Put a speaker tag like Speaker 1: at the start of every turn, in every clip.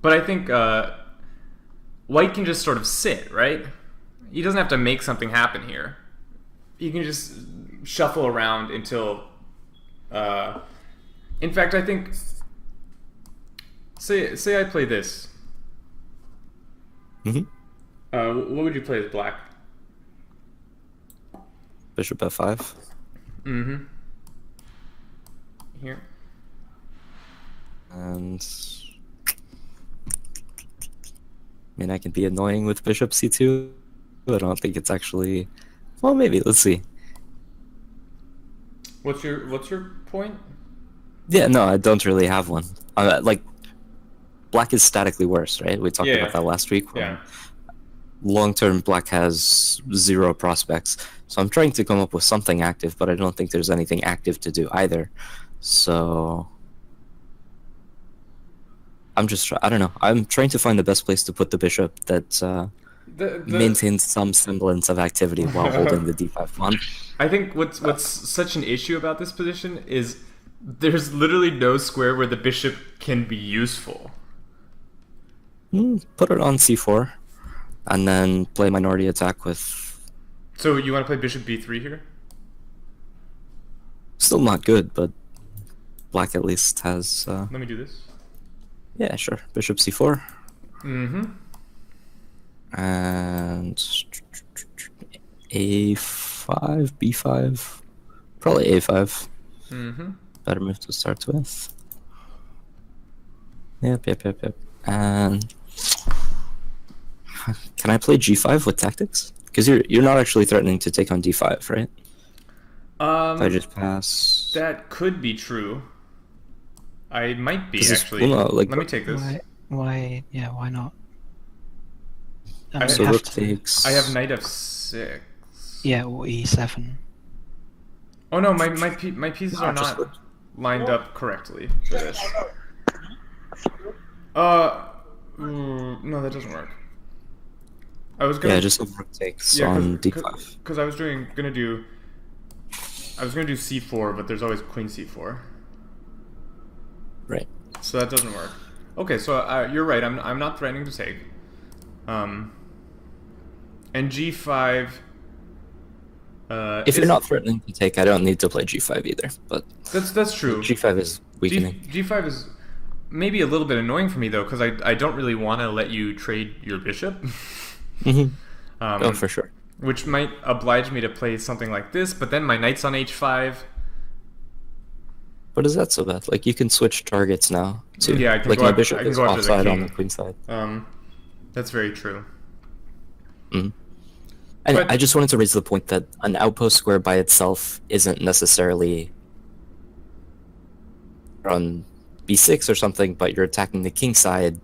Speaker 1: But I think uh, White can just sort of sit, right? He doesn't have to make something happen here. He can just shuffle around until. Uh, in fact, I think. Say say I play this.
Speaker 2: hmm
Speaker 1: Uh, wh- what would you play as black?
Speaker 2: Bishop f5.
Speaker 1: Mm-hmm. Here.
Speaker 2: And. I mean, I can be annoying with bishop c2. but I don't think it's actually. Well, maybe. Let's see.
Speaker 1: What's your What's your point?
Speaker 2: Yeah, no, I don't really have one. Uh, like, black is statically worse, right? We talked
Speaker 1: Yeah.
Speaker 2: about that last week.
Speaker 1: Yeah.
Speaker 2: Long term, black has zero prospects. So I'm trying to come up with something active, but I don't think there's anything active to do either. So I'm just, try- I don't know. I'm trying to find the best place to put the bishop that uh,
Speaker 1: The, the,
Speaker 2: maintains some semblance of activity while holding the d5 pawn.
Speaker 1: I think what's what's such an issue about this position is there's literally no square where the bishop can be useful.
Speaker 2: Hmm, put it on c4, and then play minority attack with
Speaker 1: So you want to play bishop b3 here?
Speaker 2: Still not good, but black at least has. Uh,
Speaker 1: Let me do this.
Speaker 2: yeah, sure. Bishop c4
Speaker 1: Mm-hmm.
Speaker 2: and a5, b5, probably a5.
Speaker 1: Mm-hmm.
Speaker 2: Better move to start with. Yep, yep, yep, yep. And can I play g5 with tactics? Because you're you're not actually threatening to take on d5, right? If I
Speaker 1: Um,
Speaker 2: just pass.
Speaker 1: that could be true. I might be
Speaker 2: This is-
Speaker 1: actually.
Speaker 2: well, no, like-
Speaker 1: Let me take this.
Speaker 3: Why? Why? Yeah. Why not?
Speaker 1: I-
Speaker 3: I mean,
Speaker 2: So
Speaker 3: have
Speaker 2: rook
Speaker 3: to-
Speaker 2: takes.
Speaker 1: I have knight f6.
Speaker 3: Yeah, or E e7.
Speaker 1: Oh no, my my pe- my pieces
Speaker 2: Ah,
Speaker 1: are
Speaker 2: just
Speaker 1: not
Speaker 2: look.
Speaker 1: lined up correctly for this. Uh, ooh, no, that doesn't work. I was gonna
Speaker 2: Yeah, just have rook takes on d5.
Speaker 1: because I was doing gonna do. I was gonna do c4, but there's always queen c4,
Speaker 2: Right.
Speaker 1: so that doesn't work. Okay, so uh, you're right. I'm I'm not threatening to take. Um. And g5. Uh,
Speaker 2: If you're
Speaker 1: is-
Speaker 2: not threatening to take, I don't need to play g5 either. But
Speaker 1: that's that's true.
Speaker 2: g5 is weakening.
Speaker 1: G, G5 is maybe a little bit annoying for me though because I, I don't really want to let you trade your bishop
Speaker 2: Mhm.
Speaker 1: um,
Speaker 2: Oh, for sure.
Speaker 1: which might oblige me to play something like this but then my knight's on h5
Speaker 2: But is that so bad? Like you can switch targets now. Too.
Speaker 1: Yeah, I can
Speaker 2: like
Speaker 1: go
Speaker 2: my
Speaker 1: up-
Speaker 2: bishop
Speaker 1: I can
Speaker 2: is
Speaker 1: go up to the
Speaker 2: offside on
Speaker 1: king.
Speaker 2: the queen side.
Speaker 1: um, that's very true
Speaker 2: Mhm. And
Speaker 1: But-
Speaker 2: I just wanted to raise the point that an outpost square by itself isn't necessarily on b6 or something, but you're attacking the king side.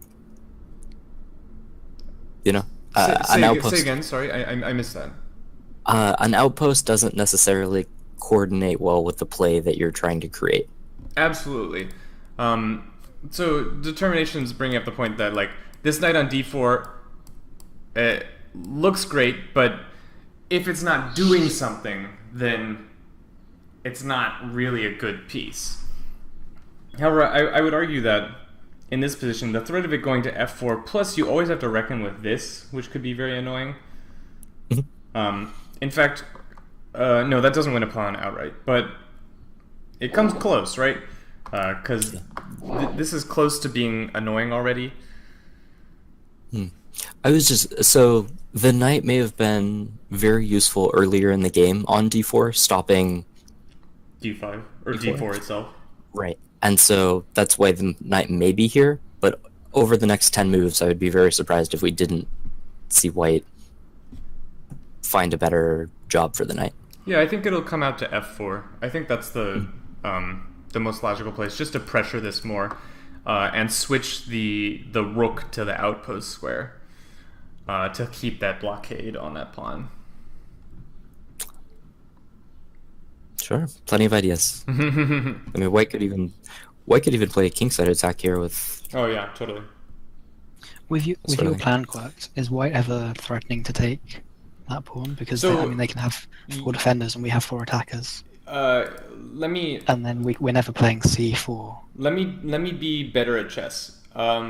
Speaker 2: You know, uh,
Speaker 1: say, say,
Speaker 2: an
Speaker 1: aga-
Speaker 2: outpost
Speaker 1: say again sorry I, I, I missed that
Speaker 2: uh, an outpost doesn't necessarily coordinate well with the play that you're trying to create.
Speaker 1: absolutely um, so determinations bringing up the point that like this knight on d4 it looks great but if it's not doing something then it's not really a good piece however I, I would argue that in this position the threat of it going to f4 plus you always have to reckon with this which could be very annoying
Speaker 2: Mhm.
Speaker 1: um, in fact uh, no that doesn't win a pawn outright but it comes close right because th- this is close to being annoying already
Speaker 2: I was just so the knight may have been very useful earlier in the game on d4, stopping
Speaker 1: d5 or
Speaker 2: D4.
Speaker 1: d4 itself
Speaker 2: right, and so that's why the knight may be here. But over the next ten moves, I would be very surprised if we didn't see white find a better job for the knight.
Speaker 1: Yeah, I think it'll come out to f4. I think that's the um, the most logical place, just to pressure this more, uh, and switch the the rook to the outpost square uh, to keep that blockade on that pawn.
Speaker 2: Sure, Mm-hmm. plenty of ideas. I mean, white could even white could even play a kingside attack here with
Speaker 1: oh yeah, totally.
Speaker 3: With you, with your
Speaker 2: Certainly.
Speaker 3: plan quirks, is White ever threatening to take that pawn? Because they, I
Speaker 1: So-
Speaker 3: mean, they can have four defenders and we have four attackers,
Speaker 1: Uh, let me
Speaker 3: and then we, we're never playing c4
Speaker 1: let me let me be better at chess. Um,